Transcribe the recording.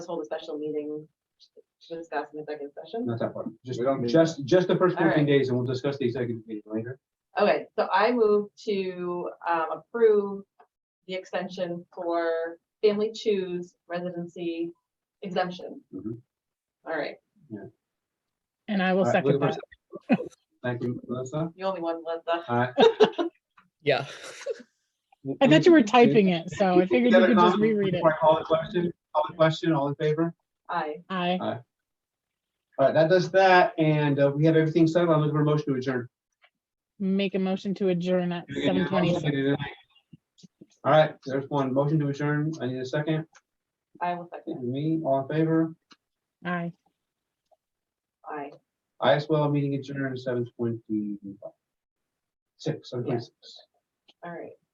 just hold a special meeting to discuss in executive session. Not that part. Just, We don't need- just, just the first All fourteen right. days and we'll discuss the executive meeting later. Okay, so I move to um, approve the extension for family choose residency exemption. Mhm. All right, And I will All right, second looking that. for a second. Thank you, Melissa. Uh, you only one, Linda. All right. Yeah. I thought you were typing it, so I figured you Got a could just comment reread it. before I Call the question, call the question, all in favor? Aye. Aye. All right, that does that, and uh, we have everything settled. I'm looking for a motion to adjourn. Make a motion to adjourn at Can I get seven a motion? twenty. All right, there's one. Motion to adjourn. I need a second. I will second. Me, all in favor? Aye. Aye. I as well, meeting adjourned seven twenty-six, seven twenty-six. All right.